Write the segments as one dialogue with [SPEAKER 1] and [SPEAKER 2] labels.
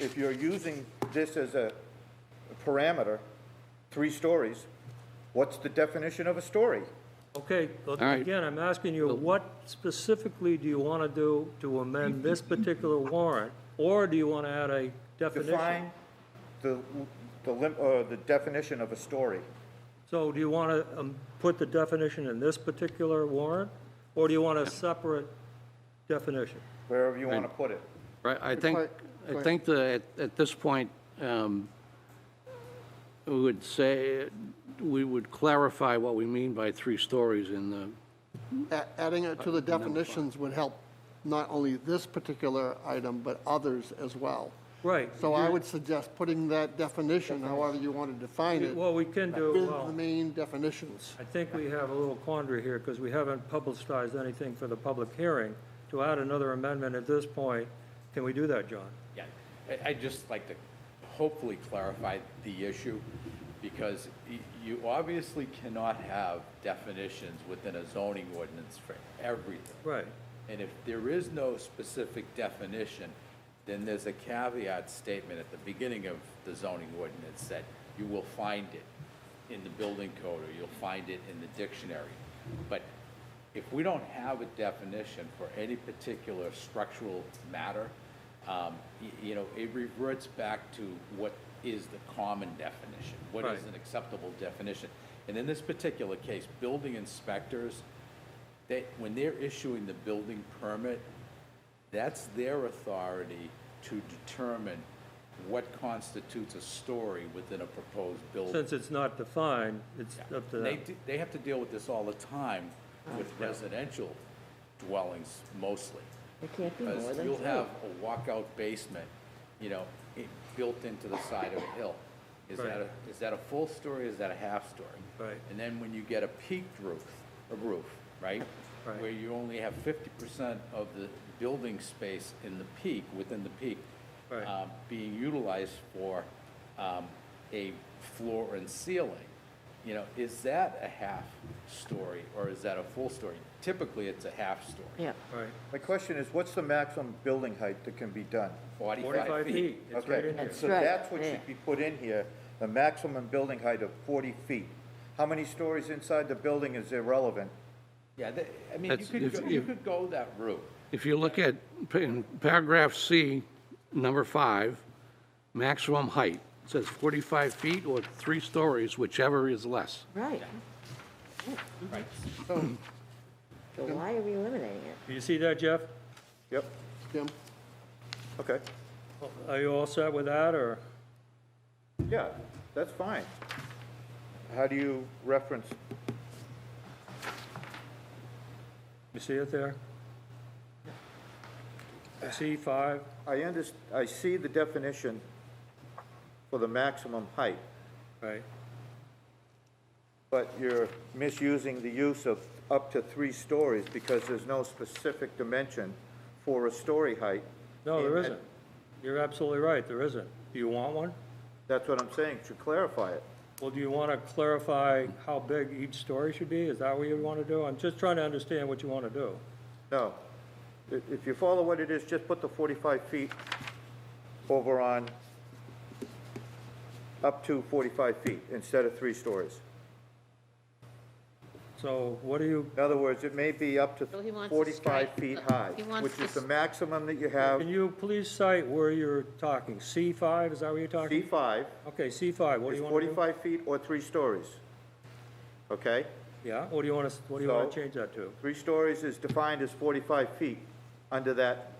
[SPEAKER 1] if you're using this as a parameter, three stories, what's the definition of a story?
[SPEAKER 2] Okay, but
[SPEAKER 3] All right.
[SPEAKER 2] again, I'm asking you, what specifically do you want to do to amend this particular warrant? Or do you want to add a definition?
[SPEAKER 1] Define the, the lim, uh, the definition of a story.
[SPEAKER 2] So do you want to put the definition in this particular warrant? Or do you want a separate definition?
[SPEAKER 1] wherever you want to put it.
[SPEAKER 3] Right, I think,
[SPEAKER 4] Clerk,
[SPEAKER 3] I
[SPEAKER 4] clerk.
[SPEAKER 3] think that at, at this point, um, we would say, we would clarify what we mean by three stories in the,
[SPEAKER 4] A- Adding it to the definitions would help not only this particular item, but others as well.
[SPEAKER 2] Right.
[SPEAKER 4] So I would suggest putting that definition, however you want to define it,
[SPEAKER 2] Well, we can do,
[SPEAKER 4] with the
[SPEAKER 2] well,
[SPEAKER 4] main definitions.
[SPEAKER 2] I think we have a little quandary here because we haven't publicized anything for the public hearing. To add another amendment at this point, can we do that, John?
[SPEAKER 5] Yeah, I- I'd just like to hopefully clarify the issue, because y- you obviously cannot have definitions within a zoning ordinance for everything.
[SPEAKER 2] Right.
[SPEAKER 5] And if there is no specific definition, then there's a caveat statement at the beginning of the zoning ordinance that you will find it in the building code, or you'll find it in the dictionary. But if we don't have a definition for any particular structural matter, um, y- you know, it reverts back to what is the common definition? What is
[SPEAKER 2] Right.
[SPEAKER 5] an acceptable definition? And in this particular case, building inspectors, they, when they're issuing the building permit, that's their authority to determine what constitutes a story within a proposed building.
[SPEAKER 2] Since it's not defined, it's up to
[SPEAKER 5] They,
[SPEAKER 2] them.
[SPEAKER 5] d- they have to deal with this all the time with residential dwellings mostly.
[SPEAKER 6] It can't be more
[SPEAKER 5] Because
[SPEAKER 6] than
[SPEAKER 5] you'll
[SPEAKER 6] three.
[SPEAKER 5] have a walkout basement, you know, i- built into the side of a hill. Is that,
[SPEAKER 2] Right.
[SPEAKER 5] a- is that a full story, is that a half story?
[SPEAKER 2] Right.
[SPEAKER 5] And then when you get a peaked roof, a roof, right?
[SPEAKER 2] Right.
[SPEAKER 5] Where you only have fifty percent of the building space in the peak, within the peak,
[SPEAKER 2] Right.
[SPEAKER 5] um, being utilized for um, a floor and ceiling, you know, is that a half story or is that a full story? Typically, it's a half story.
[SPEAKER 6] Yeah.
[SPEAKER 2] Right.
[SPEAKER 1] My question is, what's the maximum building height that can be done?
[SPEAKER 2] 45 feet. It's right
[SPEAKER 1] Okay,
[SPEAKER 2] in here.
[SPEAKER 1] so
[SPEAKER 6] That's right,
[SPEAKER 1] that's what
[SPEAKER 6] yeah.
[SPEAKER 1] should be put in here, the maximum building height of 40 feet. How many stories inside the building is irrelevant?
[SPEAKER 5] Yeah, that- I mean, you
[SPEAKER 3] That's-
[SPEAKER 5] could,
[SPEAKER 3] if-
[SPEAKER 5] go- you
[SPEAKER 3] if-
[SPEAKER 5] could go that route.
[SPEAKER 3] if you look at, in paragraph C, number five, maximum height, it says 45 feet or three stories, whichever is less.
[SPEAKER 6] Right.
[SPEAKER 5] Right.
[SPEAKER 6] So why are we eliminating it?
[SPEAKER 2] Do you see that, Jeff?
[SPEAKER 1] Yep,
[SPEAKER 4] Jim?
[SPEAKER 1] okay,
[SPEAKER 2] Are you all set with that, or?
[SPEAKER 1] yeah, that's fine. How do you reference,
[SPEAKER 2] You see it there? C five,
[SPEAKER 1] I under, I see the definition for the maximum height,
[SPEAKER 2] right,
[SPEAKER 1] but you're misusing the use of up to three stories because there's no specific dimension for a story height.
[SPEAKER 2] no, there
[SPEAKER 1] And-
[SPEAKER 2] isn't. You're absolutely right, there isn't. Do you want one?
[SPEAKER 1] That's what I'm saying, to clarify it.
[SPEAKER 2] Well, do you want to clarify how big each story should be? Is that what you want to do? I'm just trying to understand what you want to do.
[SPEAKER 1] No. If, if you follow what it is, just put the 45 feet over on, up to 45 feet instead of three stories.
[SPEAKER 2] So what do you,
[SPEAKER 1] In other words, it may be up to
[SPEAKER 7] Well, he wants to
[SPEAKER 1] 45
[SPEAKER 7] strike-
[SPEAKER 1] feet
[SPEAKER 7] uh,
[SPEAKER 1] high,
[SPEAKER 7] he wants
[SPEAKER 1] which is the
[SPEAKER 7] this-
[SPEAKER 1] maximum that you have.
[SPEAKER 2] can you please cite where you're talking? C five, is that what you're talking?
[SPEAKER 1] D5
[SPEAKER 2] Okay, C five, what do
[SPEAKER 1] is
[SPEAKER 2] you want to do?
[SPEAKER 1] 45 feet or three stories. Okay?
[SPEAKER 2] Yeah, what do you want to, what do you want
[SPEAKER 1] So-
[SPEAKER 2] to change that to?
[SPEAKER 1] Three stories is defined as 45 feet under that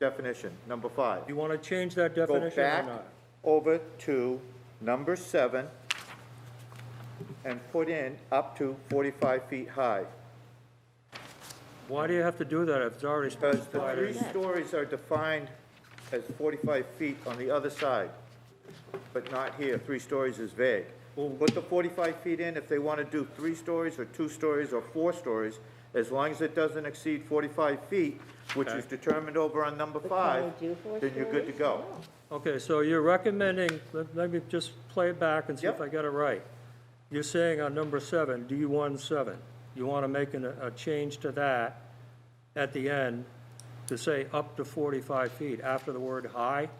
[SPEAKER 1] definition, number five.
[SPEAKER 2] Do you want to change that
[SPEAKER 1] go
[SPEAKER 2] definition or
[SPEAKER 1] back
[SPEAKER 2] not?
[SPEAKER 1] over to number seven and put in up to 45 feet high.
[SPEAKER 2] Why do you have to do that if it's already
[SPEAKER 1] Because the
[SPEAKER 2] specified?
[SPEAKER 1] three
[SPEAKER 2] as-
[SPEAKER 1] stories are defined as 45 feet on the other side, but not here. Three stories is vague. Put the 45 feet in if they want to do three stories or two stories or four stories, as long as it doesn't exceed 45 feet, which is determined over on number
[SPEAKER 6] But can
[SPEAKER 1] five,
[SPEAKER 6] we do four
[SPEAKER 1] then you're good to
[SPEAKER 6] stories? Oh.
[SPEAKER 1] go.
[SPEAKER 6] No.
[SPEAKER 2] Okay, so you're recommending, let let me just play it back and see if
[SPEAKER 1] Yep.
[SPEAKER 2] I got it right. You're saying on number seven, D17, you want to make an- a change to that at the end to say up to 45 feet after the word high?